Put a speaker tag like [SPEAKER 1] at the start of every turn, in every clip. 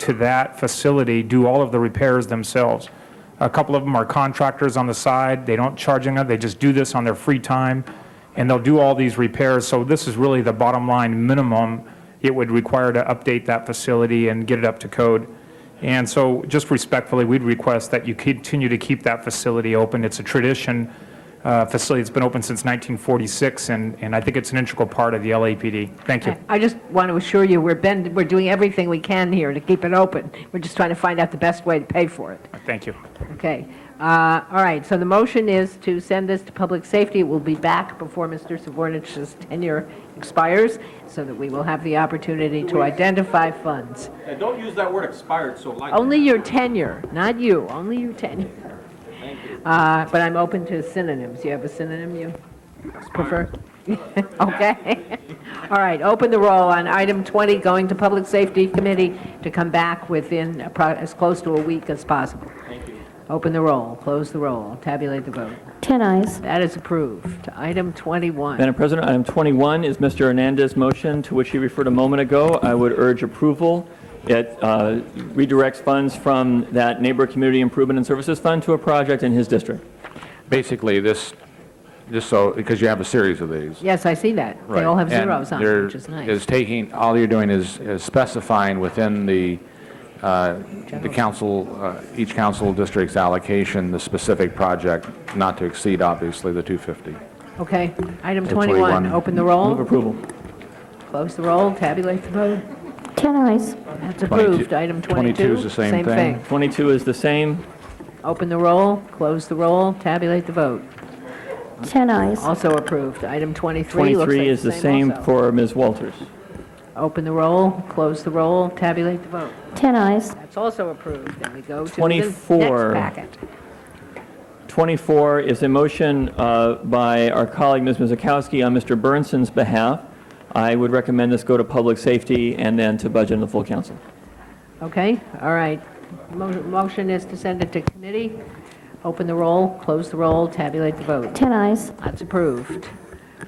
[SPEAKER 1] to that facility do all of the repairs themselves. A couple of them are contractors on the side, they don't charge enough, they just do this on their free time, and they'll do all these repairs, so this is really the bottom line minimum it would require to update that facility and get it up to code. And so, just respectfully, we'd request that you continue to keep that facility open. It's a tradition, uh, facility that's been open since 1946, and, and I think it's an integral part of the LAPD. Thank you.
[SPEAKER 2] I just want to assure you, we're been, we're doing everything we can here to keep it open. We're just trying to find out the best way to pay for it.
[SPEAKER 1] Thank you.
[SPEAKER 2] Okay. Uh, All right, so the motion is to send this to public safety. It will be back before Mr. Savornich's tenure expires, so that we will have the opportunity to identify funds.
[SPEAKER 3] Yeah, don't use that word expired so lightly.
[SPEAKER 2] Only your tenure, not you, only your tenure. Uh, But I'm open to synonyms. You have a synonym you prefer? Okay. All right, open the roll on item 20, going to Public Safety Committee to come back within appro- as close to a week as possible. Thank you. Open the roll, close the roll, tabulate the vote.
[SPEAKER 4] 10 eyes.
[SPEAKER 2] That is approved. Item 21.
[SPEAKER 5] Madam President, item 21 is Mr. Hernandez's motion to which he referred a moment ago. I would urge approval. It uh, redirects funds from that Neighbor Community Improvement and Services Fund to a project in his district.
[SPEAKER 6] Basically, this, just so, because you have a series of these.
[SPEAKER 2] Yes, I see that. They all have
[SPEAKER 6] Right. And
[SPEAKER 2] zeros on
[SPEAKER 6] there
[SPEAKER 2] them, which is nice.
[SPEAKER 6] Is taking, all you're doing is is specifying within the, uh, the council, uh, each council district's allocation, the specific project, not to exceed, obviously, the 250.
[SPEAKER 2] Okay, item 21,
[SPEAKER 6] 21.
[SPEAKER 2] open the
[SPEAKER 5] Move
[SPEAKER 2] roll,
[SPEAKER 5] approval.
[SPEAKER 2] close the roll, tabulate the vote.
[SPEAKER 4] 10 eyes.
[SPEAKER 2] That's approved.
[SPEAKER 6] 22
[SPEAKER 2] Item 22.
[SPEAKER 6] 22 is the same thing.
[SPEAKER 5] 22 is the same.
[SPEAKER 2] Open the roll, close the roll, tabulate the vote.
[SPEAKER 4] 10 eyes.
[SPEAKER 2] Also approved. Item 23 looks like
[SPEAKER 5] 23 is the same
[SPEAKER 2] also.
[SPEAKER 5] for Ms. Walters.
[SPEAKER 2] Open the roll, close the roll, tabulate the vote.
[SPEAKER 4] 10 eyes.
[SPEAKER 2] That's also approved. And we go to the next
[SPEAKER 5] 24.
[SPEAKER 2] packet.
[SPEAKER 5] 24 is a motion uh, by our colleague, Ms. Mizakowski, on Mr. Burnson's behalf. I would recommend this go to Public Safety and then to Budget and the full council.
[SPEAKER 2] Okay, all right. Mo- Motion is to send it to committee. Open the roll, close the roll, tabulate the vote.
[SPEAKER 4] 10 eyes.
[SPEAKER 2] That's approved.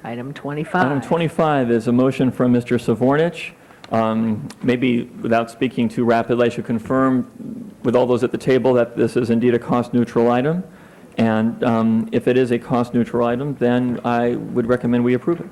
[SPEAKER 2] Item 25.
[SPEAKER 5] Item 25 is a motion from Mr. Savornich. Um, Maybe without speaking too rapidly, I should confirm with all those at the table that this is indeed a cost-neutral item. And um, if it is a cost-neutral item, then I would recommend we approve it.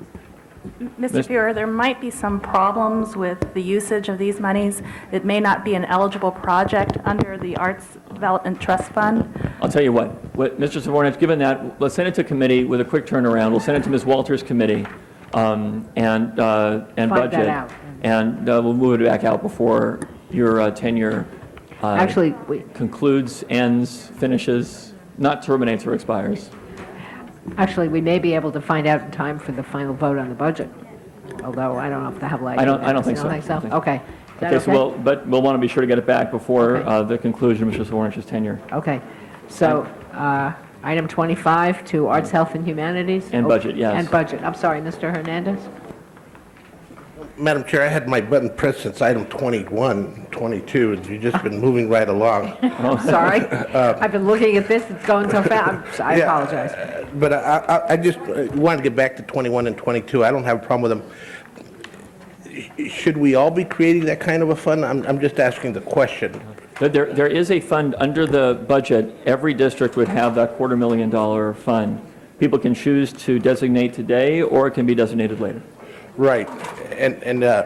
[SPEAKER 7] Mr. Fuhrer, there might be some problems with the usage of these monies. It may not be an eligible project under the Arts Development Trust Fund.
[SPEAKER 5] I'll tell you what, what, Mr. Savornich, given that, let's send it to committee with a quick turnaround. We'll send it to Ms. Walters' committee um, and, uh, and
[SPEAKER 2] Find that
[SPEAKER 5] budget.
[SPEAKER 2] out.
[SPEAKER 5] And uh, we'll move it back out before your uh, tenure uh,
[SPEAKER 2] Actually, we-
[SPEAKER 5] concludes, ends, finishes, not terminates or expires.
[SPEAKER 2] Actually, we may be able to find out in time for the final vote on the budget, although I don't know if the will.
[SPEAKER 5] I don't- I don't think so.
[SPEAKER 2] You don't think so? Okay. Is that
[SPEAKER 5] Okay, so we'll, but we'll want to be sure to get it back before
[SPEAKER 2] Okay.
[SPEAKER 5] uh, the conclusion of Mr. Savornich's tenure
[SPEAKER 2] Okay, so, uh, item 25 to Arts, Health, and Humanities?
[SPEAKER 5] And
[SPEAKER 2] Oh,
[SPEAKER 5] budget, yes.
[SPEAKER 2] And budget, I'm sorry, Mr. Hernandez?
[SPEAKER 8] Madam Chair, I had my button pressed since item 21, 22, and you've just been moving right along.
[SPEAKER 2] Sorry, I've been looking at this, it's going so fast, I
[SPEAKER 8] Yeah.
[SPEAKER 2] apologize.
[SPEAKER 8] But I- I I just uh, wanted to get back to 21 and 22. I don't have a problem with them. Should we all be creating that kind of a fund? I'm I'm just asking the question.
[SPEAKER 5] There- There, there is a fund under the budget, every district would have that quarter million dollar fund. People can choose to designate today, or it can be designated later.
[SPEAKER 8] Right. And and uh,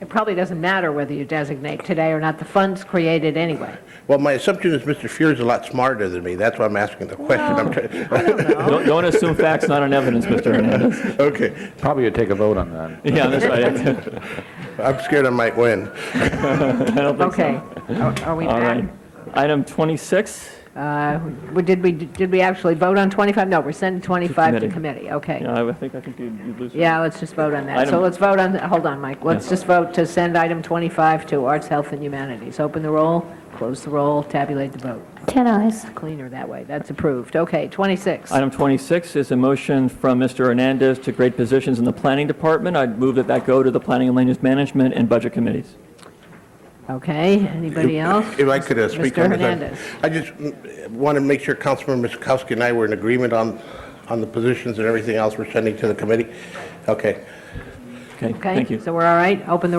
[SPEAKER 2] It probably doesn't matter whether you designate today or not, the fund's created anyway.
[SPEAKER 8] Well, my assumption is Mr. Fuhr's a lot smarter than me. That's why I'm asking the question. I'm try-
[SPEAKER 2] Oh.
[SPEAKER 5] Don't, don't assume facts not on evidence, Mr. Hernandez.
[SPEAKER 8] Okay,
[SPEAKER 6] Probably would take a vote on that.
[SPEAKER 5] Yeah, that's right.
[SPEAKER 8] I'm scared I might win.
[SPEAKER 2] Okay, are are we
[SPEAKER 5] All
[SPEAKER 2] back?
[SPEAKER 5] right. Item 26,
[SPEAKER 2] Uh, we- Did we, did we actually vote on 25? No, we're sending 25 to
[SPEAKER 5] committee.
[SPEAKER 2] committee, okay.
[SPEAKER 5] Yeah, I think, I think you'd you'd lose.
[SPEAKER 2] Yeah, let's just vote on that. So
[SPEAKER 5] Item-
[SPEAKER 2] let's vote on, hold on, Mike. Let's just vote to send item 25 to Arts, Health, and Humanities. Open the roll, close the roll, tabulate the vote.
[SPEAKER 4] 10 eyes.
[SPEAKER 2] Cleaner that way. That's approved. Okay, 26.
[SPEAKER 5] Item 26 is a motion from Mr. Hernandez to great positions in the planning department. I'd move that that go to the planning and land use management and budget committees.
[SPEAKER 2] Okay, anybody else?
[SPEAKER 8] If I could uh, speak on this.
[SPEAKER 2] Mr.
[SPEAKER 8] I-
[SPEAKER 2] Hernandez.
[SPEAKER 8] I just mm, want to make sure Councilman Miskowski and I were in agreement on, on the positions and everything else we're sending to the committee. Okay.
[SPEAKER 5] Okay,
[SPEAKER 2] Okay?
[SPEAKER 5] thank you.
[SPEAKER 2] So we're all right? Open the